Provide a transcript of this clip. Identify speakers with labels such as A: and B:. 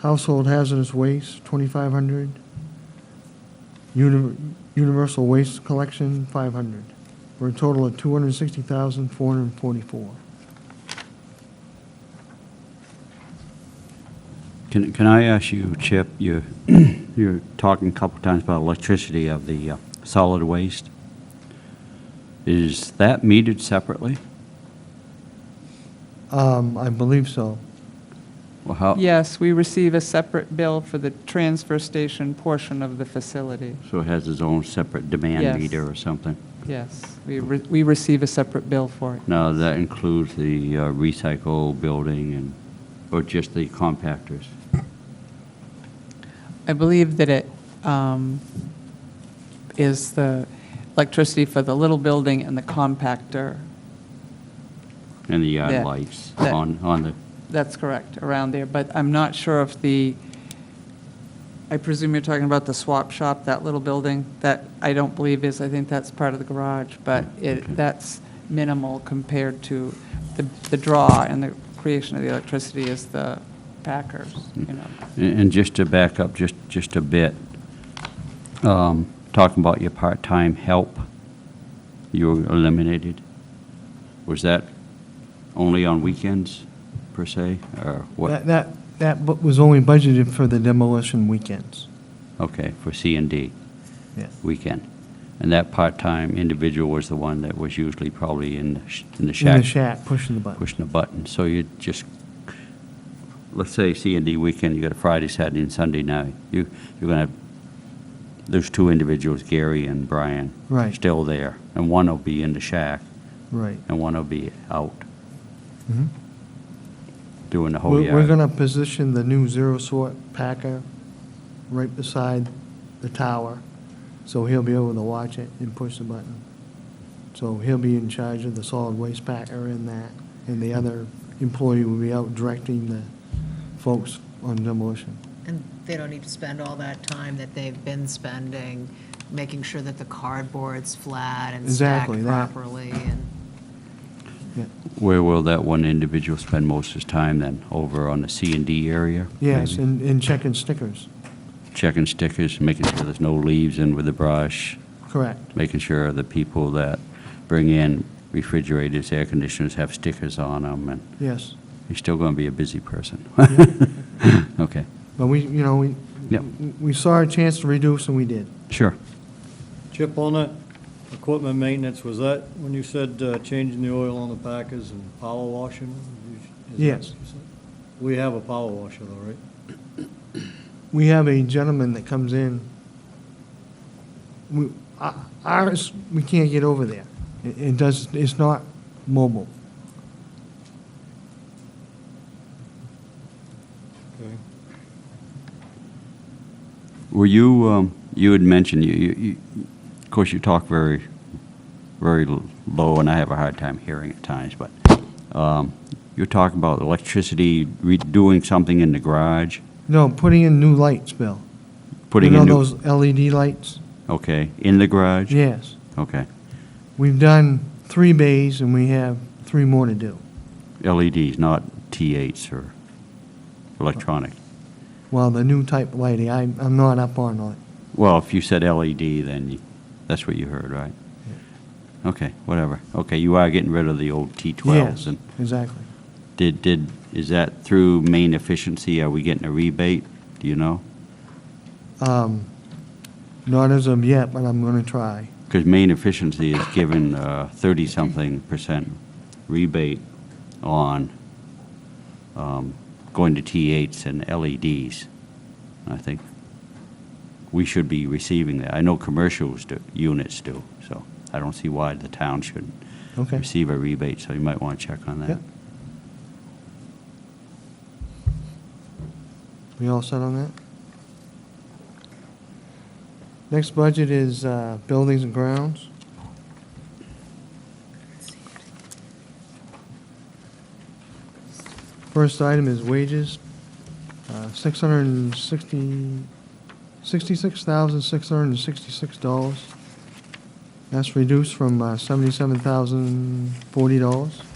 A: Household hazardous waste, twenty-five hundred. Universal waste collection, five hundred. For a total of two hundred and sixty thousand, four hundred and forty-four.
B: Can, can I ask you, Chip, you, you're talking a couple times about electricity of the uh, solid waste. Is that metered separately?
A: Um, I believe so.
B: Well, how?
C: Yes, we receive a separate bill for the transfer station portion of the facility.
B: So it has its own separate demand
C: Yes.
B: meter or something?
C: Yes, we, re- we receive a separate bill for it.
B: Now, that includes the uh, recycle building and, or just the compactors?
C: I believe that it um, is the electricity for the little building and the compactor.
B: And the yard
C: That-
B: lights
C: that-
B: on, on the,
C: That's correct, around there, but I'm not sure if the, I presume you're talking about the swap shop, that little building, that I don't believe is, I think that's part of the garage, but
B: Okay.
C: it, that's minimal compared to the, the draw and the creation of the electricity is the Packers, you know.
B: and and just to back up just, just a bit, um, talking about your part-time help, you were eliminated. Was that only on weekends, per se, or
A: That,
B: what?
A: that, that bu- was only budgeted for the demolition weekends.
B: Okay, for C and D,
A: Yeah.
B: weekend. And that part-time individual was the one that was usually probably in, the sh- in the
A: In the
B: shack
A: shack, pushing the button.
B: pushing a button. So you just, let's say C and D weekend, you got a Friday, Saturday, and Sunday now. You, you're gonna have those two individuals, Gary and Brian.
A: Right.
B: Still there, and one will be in the shack,
A: Right.
B: and one will be out
A: Mhm.
B: doing the whole
A: We're, we're
B: yard.
A: gonna position the new zero sort packer right beside the tower, so he'll be able to watch it and push the button. So he'll be in charge of the solid waste packer and that, and the other employee will be out directing the folks on demolition.
D: And they don't need to spend all that time that they've been spending, making sure that the cardboard's flat and stacked
A: Exactly, that.
D: properly and.
A: Yeah.
B: Where will that one individual spend most of his time then? Over on the C and D area?
A: Yes,
B: maybe?
A: and, and checking stickers,
B: Checking stickers, making sure there's no leaves in with the brush.
A: correct.
B: making sure the people that bring in refrigerators, air conditioners have stickers on them, and
A: Yes,
B: he's still going to be a busy person. Okay,
A: but we, you know, we,
B: Yep.
A: we saw a chance to reduce and we did.
B: sure.
E: Chip, on that equipment maintenance, was that when you said uh, changing the oil on the packers and power washing? them? Is that
A: Yes.
E: what you said? We have a power washer though, right?
A: We have a gentleman that comes in. We, o- ours, we can't get over there. It, it does, it's not mobile.
E: Okay.
B: Were you, um, you had mentioned, you, you, you- of course, you talk very, very l- low, and I have a hard time hearing at times, but um, you're talking about electricity, redoing something in the garage,
A: No, putting in new lights, Bill.
B: putting
A: You
B: in
A: know
B: new...
A: those LED lights?
B: Okay, in the garage?
A: Yes.
B: Okay,
A: We've done three bays and we have three more to do.
B: LEDs, E not T8s or electronic.
A: Well, the new type of lighting, I, I'm not up on it.
B: Well, if you said LED, then you- that's what you heard, right? Okay, whatever. Okay, you are getting rid of the old T12s.
A: Yes,
B: And
A: exactly.
B: did, did, is that through main efficiency? Are we getting a rebate? Do you know?
A: Um, not as of yet, but I'm gonna try.
B: Because main efficiency is given uh, 30-something percent rebate on um, going to T8s and LEDs. I think we should be receiving that. I know commercials do, units do, so I don't see why the town shouldn't
A: Okay.
B: receive a rebate, so you might want to check on that.
A: Yep. We all set on that? Next budget is uh, buildings and grounds. First item is wages, uh, $660 $66,666. That's reduced from uh, $77,040.